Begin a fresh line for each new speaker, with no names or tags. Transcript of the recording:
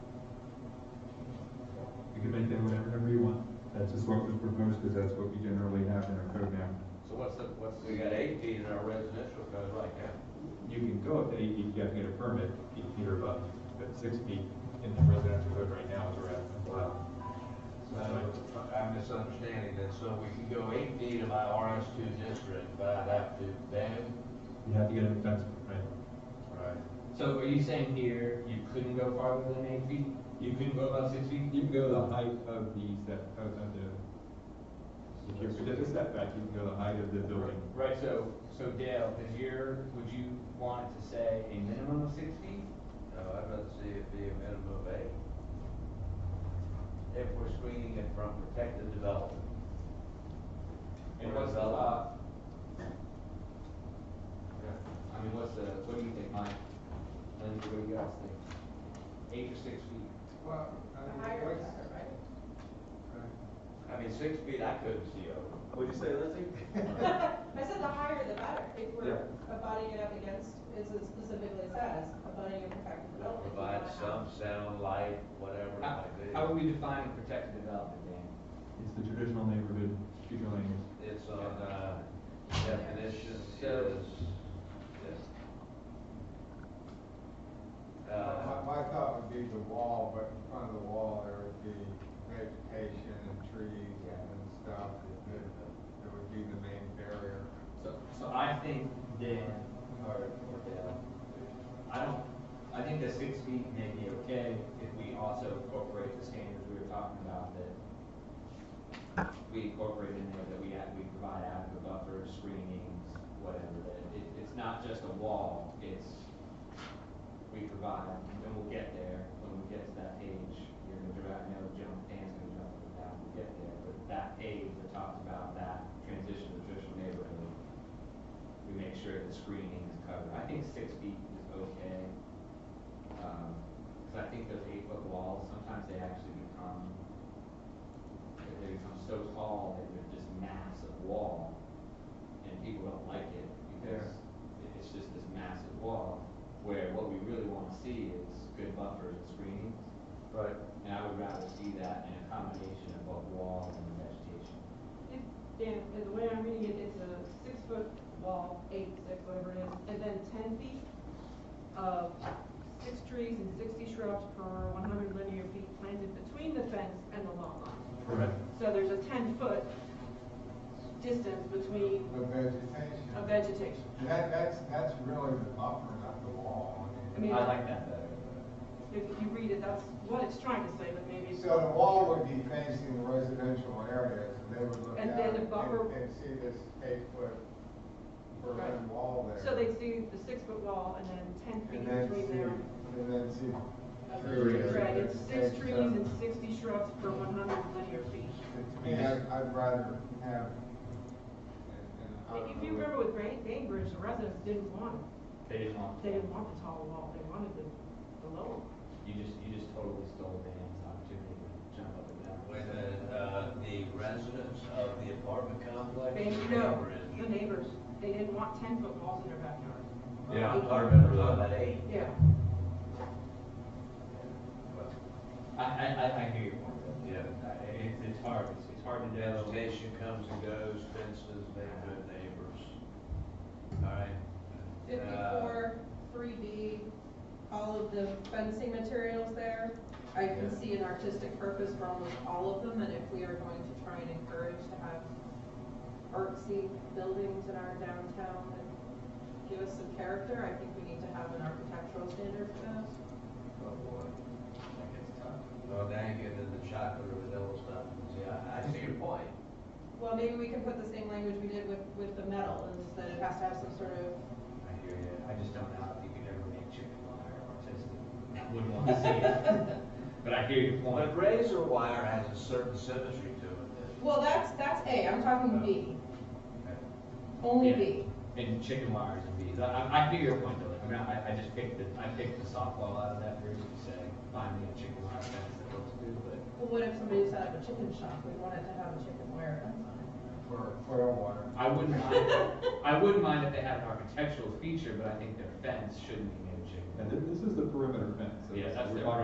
do whatever you want. That's just what was proposed, because that's what we generally have in our code now.
So what's the, what's, we got eighteen in our residential code right now.
You can go up to eight feet, you have to get a permit, eight feet or above, but six feet in the residential code right now is around allowed.
So I'm misunderstanding that, so we can go eighteen in my RS two district, but I'd have to then.
You have to get a fence permit.
Right.
So are you saying here, you couldn't go farther than eight feet? You couldn't go above six feet?
You can go the height of the set, of of the, if you're within the setback, you can go the height of the building.
Right, so, so Dale, is your, would you want it to say a minimum of six feet?
No, I'd rather see it be a minimum of eight. If we're screening it from protected development.
And what's the, uh? yeah, I mean, what's the, what do you think, Mike? Lindsay, what do you guys think? Eight or six feet?
Well, I mean, what's,
I mean, six feet, I couldn't see over.
What'd you say, Lindsay?
I said the higher the better, if we're
Yeah.
abutting it up against, as it specifically says, abutting a protected development. you
Provide
wanna
some
have-
sound, light, whatever it
How,
might be.
how are we defining protected development, Dan?
It's the traditional neighborhood future land use.
It's on, uh, definition
So-
is, yes.
my,
Uh,
my thought would be the wall, but in front of the wall, there would be vegetation and trees and stuff. that- That would be the main barrier.
So, so I think Dan, or, or Dale, I don't, I think the six feet may be okay if we also incorporate the standards we were talking about that we incorporate in there, that we have, we provide adequate buffer, screenings, whatever, that it, it's not just a wall, it's we provide, and we'll get there, when we get to that page, you're gonna direct, I know Jim, Dan's gonna jump on that, we'll get there, but that page that talks about that transition to traditional neighborhood, we make sure the screening is covered. I think six feet is okay. Um 'cause cause I think those eight foot walls, sometimes they actually become, they they become so tall that they're this massive wall. And people don't like it because it- it's just this massive wall, where what we really wanna see is good buffers and screening.
Right.
And I would rather see that in a combination of both walls and vegetation.
If- Dan, the way I'm reading it, it's a six foot wall, eight, six, whatever it is, and then ten feet of six trees and sixty shrubs per one hundred linear feet planted between the fence and the lawn line.
Correct.
So there's a ten foot distance between
The vegetation.
a vegetation.
And That, that's, that's really the buffer, not the wall.
I mean,
I like that better.
If you read it, that's what it's trying to say, but maybe.
So the wall would be facing the residential areas, and they would look
And
down
then the
and,
buffer-
and see this eight-foot
Right.
berlin wall there.
So they'd see the six foot wall and then ten feet
And then
between
see,
there.
and then see. trees
Right,
and
it's six trees
vegetation.
and sixty shrubs per one hundred linear feet.
To me, I'd, I'd rather have.
If you remember with Great Bainbridge, the residents didn't want, it.
They didn't want.
they didn't want the tall wall, they wanted the, the low. one.
You just, you just totally stole Dan's opportunity to jump up and down.
When the, uh, the residents of the apartment complex.
They, no,
neighbor is-
the neighbors, they didn't want ten foot walls in their backyard.
Yeah, I remember that.
Yeah.
I, I, I, I hear your point. though.
Yeah.
I- It's, it's hard, it's, it's hard to know.
Vegetation comes and goes, fences, neighborhood neighbors. All right. Uh,
Fifty-four, three B, all of the fencing materials there. I can see an artistic purpose for almost all of them, and if we are going to try and encourage to have artsy buildings in our downtown and give us some character, I think we need to have an architectural standard for those.
Oh, boy. That gets tough. Uh, Well, now you're getting into chocolate or vanilla stuff. Yeah, I see your point.
Well, maybe we can put the same language we did with, with the metal, is that it has to have some sort of
I hear you. I just don't know if you could ever make chicken wire artistic. I wouldn't want to see it. But I hear your point.
But razor wire has a certain symmetry to it.
Well, that's, that's A, I'm talking B, only
Yeah.
B.
And chicken wires and bees. I, I, I hear your point though. I mean, I, I just picked the, I picked the softball out of that for you to say, find me a chicken wire fence that looks good, but
Well, what if somebody set up a chicken shop, we wanted to have a chicken wire fence on it?
For oil water.
I wouldn't mind, I wouldn't mind if they had an architectural feature, but I think their fence shouldn't be made of chicken.
And thi- this is the perimeter fence. so
Yeah, that's
we're
the-
talking